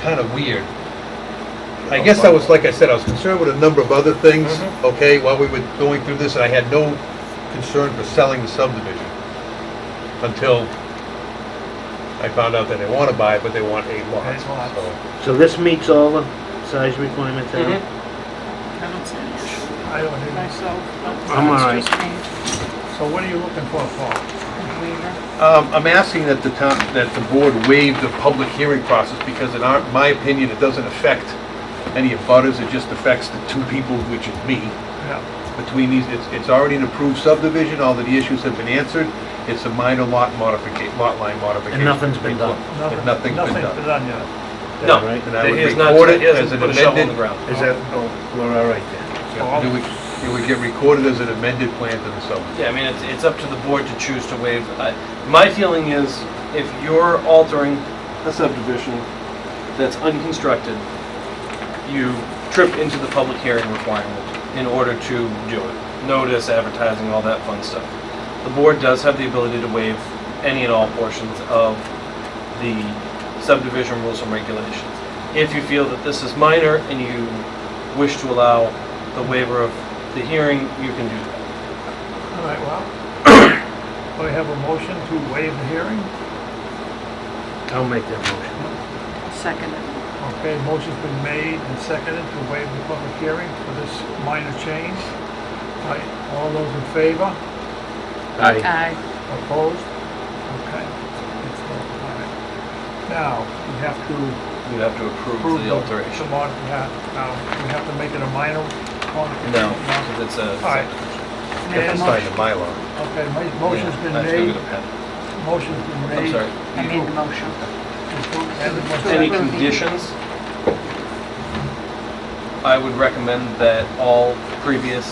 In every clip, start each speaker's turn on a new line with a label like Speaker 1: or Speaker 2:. Speaker 1: kind of weird.
Speaker 2: You
Speaker 1: I
Speaker 2: know,
Speaker 1: guess I
Speaker 2: but-
Speaker 1: was, like I said, I was concerned with a number of other things,
Speaker 2: Mhm.
Speaker 1: okay, while we were going through this, and I had no concern for selling the subdivision until I found out that they want to buy it, but they want a lot.
Speaker 2: That's lot.
Speaker 1: So,
Speaker 3: So this meets all the size requirements, Adam?
Speaker 4: I don't see any issue
Speaker 2: I don't know.
Speaker 4: myself.
Speaker 3: I'm all right.
Speaker 4: It's just me,
Speaker 2: So what are you looking for, Paul?
Speaker 4: waiver.
Speaker 1: Um, I'm asking that the town, that the board waive the public hearing process, because in our, my opinion, it doesn't affect any of butters, it just affects the two people, which is me.
Speaker 2: Yeah,
Speaker 1: between these, it's, it's already an approved subdivision, all of the issues have been answered, it's a minor lot modification, lot line modification.
Speaker 3: And nothing's been done.
Speaker 1: And nothing's been
Speaker 2: Nothing's been
Speaker 1: done.
Speaker 2: done yet.
Speaker 5: No.
Speaker 3: Right?
Speaker 1: And I would
Speaker 5: He has not-
Speaker 1: record it
Speaker 5: he hasn't
Speaker 1: as an
Speaker 5: put a shovel in
Speaker 1: amended-
Speaker 5: the ground.
Speaker 3: Is that, oh,
Speaker 4: Mm-hmm.
Speaker 3: we're all right then.
Speaker 2: So I'll-
Speaker 1: It would, it would get recorded as an amended plan to the subdivision.
Speaker 5: Yeah, I mean, it's, it's up to the board to choose to waive. I- My feeling is, if you're altering a subdivision that's unconstructed, you trip into the public hearing requirement in order to do it. Notice, advertising, all that fun stuff. The board does have the ability to waive any and all portions of the subdivision rules and regulations. If you feel that this is minor and you wish to allow the waiver of the hearing, you can do that.
Speaker 2: All right, well, we have a motion to waive the hearing.
Speaker 3: I'll make that motion.
Speaker 4: Second it.
Speaker 2: Okay, motion's been made and seconded to waive the public hearing for this minor change. All right, all those in favor?
Speaker 3: Aye.
Speaker 4: Aye.
Speaker 2: Opposed? Okay. It's all right. Now, we have to
Speaker 5: You have to approve
Speaker 2: approve
Speaker 5: the
Speaker 2: the
Speaker 5: alteration.
Speaker 2: mod- yeah, now, we have to make it a minor modification.
Speaker 5: No, because it's a.
Speaker 2: All right.
Speaker 4: Make a
Speaker 1: It's
Speaker 4: motion.
Speaker 1: signed the Mylar.
Speaker 2: Okay, ma- motion's
Speaker 5: Yeah,
Speaker 2: been
Speaker 5: I have to go
Speaker 2: made,
Speaker 5: get a pen.
Speaker 2: motion's been made.
Speaker 5: I'm sorry.
Speaker 4: I made the motion.
Speaker 5: Any
Speaker 2: sorry.
Speaker 4: approve the-
Speaker 5: conditions? I would recommend that all previous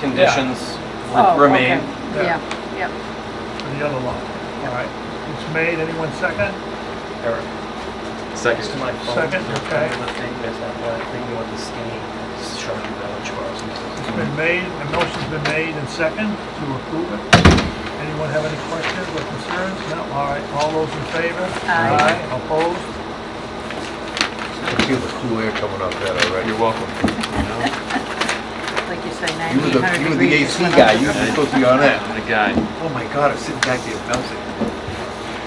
Speaker 5: conditions
Speaker 4: Oh,
Speaker 5: re- remain.
Speaker 4: okay. Yeah, yeah.
Speaker 2: For the other lot. All right, it's made, anyone second?
Speaker 5: Eric,
Speaker 6: Second.
Speaker 5: next to my phone,
Speaker 2: Second,
Speaker 5: there's
Speaker 2: okay.
Speaker 5: another thing, there's that one thing with the skinny, sharp village bars.
Speaker 2: It's been made, the motion's been made and second to approve it. Anyone have any questions or concerns? No, all right, all those in favor?
Speaker 4: Aye.
Speaker 2: Opposed?
Speaker 1: I feel the cool air coming off that already.
Speaker 6: You're welcome.
Speaker 4: Like you say,
Speaker 1: You were the,
Speaker 4: 9,800
Speaker 1: you were the
Speaker 4: degrees.
Speaker 1: AC guy, you were supposed to be on that.
Speaker 6: I'm the guy.
Speaker 1: Oh my God, I'm sitting back there bouncing.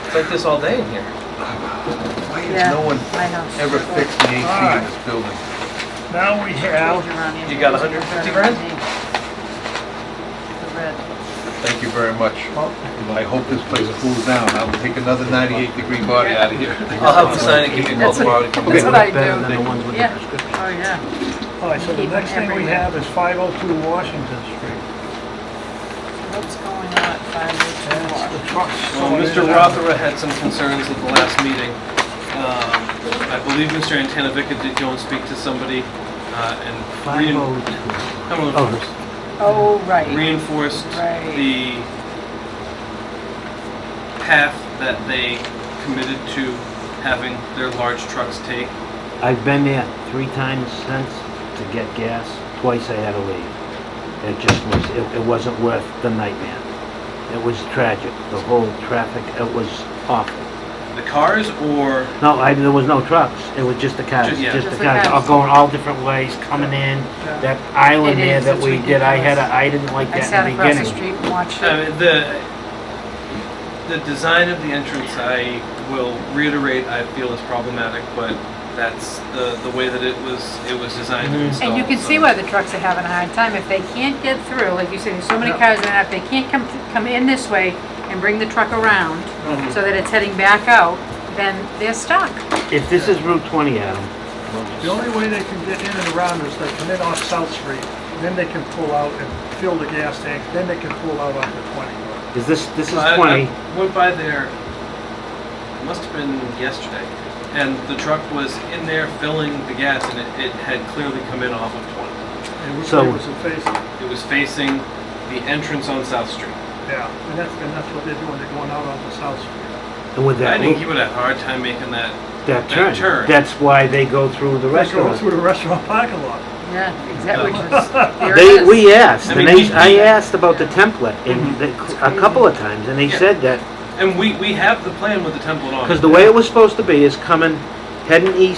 Speaker 5: It's like this all day in here.
Speaker 1: Why
Speaker 4: Yeah,
Speaker 1: has no one
Speaker 4: I know.
Speaker 1: ever fixed the AC in
Speaker 2: Alright.
Speaker 1: this building?
Speaker 2: Now we have,
Speaker 5: You got 150 grand?
Speaker 4: The red.
Speaker 1: Thank you very much.
Speaker 2: oh,
Speaker 1: I hope this place cools down, I'll take another 98 degree body out of here.
Speaker 5: I'll have them sign it, give you a call
Speaker 4: That's
Speaker 5: tomorrow to come
Speaker 4: That's
Speaker 5: in.
Speaker 4: what I
Speaker 3: Better
Speaker 4: do.
Speaker 3: than the ones with the
Speaker 4: Yeah.
Speaker 3: prescription.
Speaker 4: Oh, yeah.
Speaker 2: all right, so the
Speaker 4: Keep them
Speaker 2: next thing we
Speaker 4: everywhere.
Speaker 2: have is 502 Washington Street.
Speaker 4: What's going on at
Speaker 2: That's
Speaker 4: 502
Speaker 2: the trucks.
Speaker 5: Well, Mr. Rothera had some concerns at the last meeting. Um, I believe Mr. Antanavica did go and speak to somebody uh, and rein-
Speaker 3: 502.
Speaker 5: come
Speaker 3: Oh,
Speaker 5: on,
Speaker 3: this-
Speaker 4: Oh, right.
Speaker 5: reinforced
Speaker 4: Right.
Speaker 5: the path that they committed to having their large trucks take.
Speaker 3: I've been there three times since to get gas. Twice I had to leave. It just was, it, it wasn't worth the nightmare. It was tragic, the whole traffic, it was awful.
Speaker 5: The cars or,
Speaker 3: No, I, there was no trucks. It was just the cars,
Speaker 5: Ju- yeah.
Speaker 3: just the
Speaker 4: Just the
Speaker 3: cars, all
Speaker 4: cars.
Speaker 3: going all different ways, coming in. That island
Speaker 4: It
Speaker 3: there
Speaker 4: is,
Speaker 3: that
Speaker 4: it's
Speaker 3: we did, I had,
Speaker 4: ridiculous.
Speaker 3: a- I didn't like
Speaker 4: I
Speaker 3: that
Speaker 4: sat
Speaker 3: in the
Speaker 4: across the
Speaker 3: beginning.
Speaker 4: street and watched
Speaker 5: I
Speaker 4: it.
Speaker 5: mean, the, the design of the entrance, I will reiterate, I feel is problematic, but that's the, the way that it was, it was designed
Speaker 3: Mhm.
Speaker 5: and
Speaker 3: And
Speaker 5: installed.
Speaker 4: And you can
Speaker 5: so-
Speaker 4: see why the trucks are having a hard time. If they can't get through, like you said, there's so many
Speaker 2: Yeah.
Speaker 4: cars in and out, if they can't come, come in this way and bring the truck around so that it's heading back out, then they're stuck.
Speaker 3: If this is Route 20, Adam,
Speaker 2: The only way they can get in and around is they come in off South Street, then they can pull out and fill the gas tank, then they can pull out onto 20.
Speaker 3: is this, this is
Speaker 5: I- I
Speaker 3: 20,
Speaker 5: Went by there, must have been yesterday, and the truck was in there filling the gas and it, it had clearly come in off of 20.
Speaker 2: And we-
Speaker 3: So-
Speaker 2: it was a face,
Speaker 5: It was facing the entrance on South Street.
Speaker 2: yeah, and that's, and that's what they're doing, they're going out onto South Street.
Speaker 3: and with
Speaker 5: I
Speaker 3: that,
Speaker 5: think he
Speaker 3: loop-
Speaker 5: would have a hard time making that,
Speaker 3: that
Speaker 5: that turn.
Speaker 3: turn, that's why they go through the
Speaker 2: They go
Speaker 3: restaurant.
Speaker 2: through the restaurant parking lot.
Speaker 4: Yeah, exactly. which is- there it
Speaker 3: They,
Speaker 4: is.
Speaker 3: we asked,
Speaker 5: I
Speaker 3: and
Speaker 5: mean,
Speaker 3: they,
Speaker 5: we-
Speaker 3: I asked about the template,
Speaker 5: Mhm.
Speaker 3: and they- a couple of times, and they
Speaker 5: Yeah. Oh,
Speaker 3: said that,
Speaker 5: and we, we have the plan with the template on it.
Speaker 3: because the way it was supposed to be is coming, heading east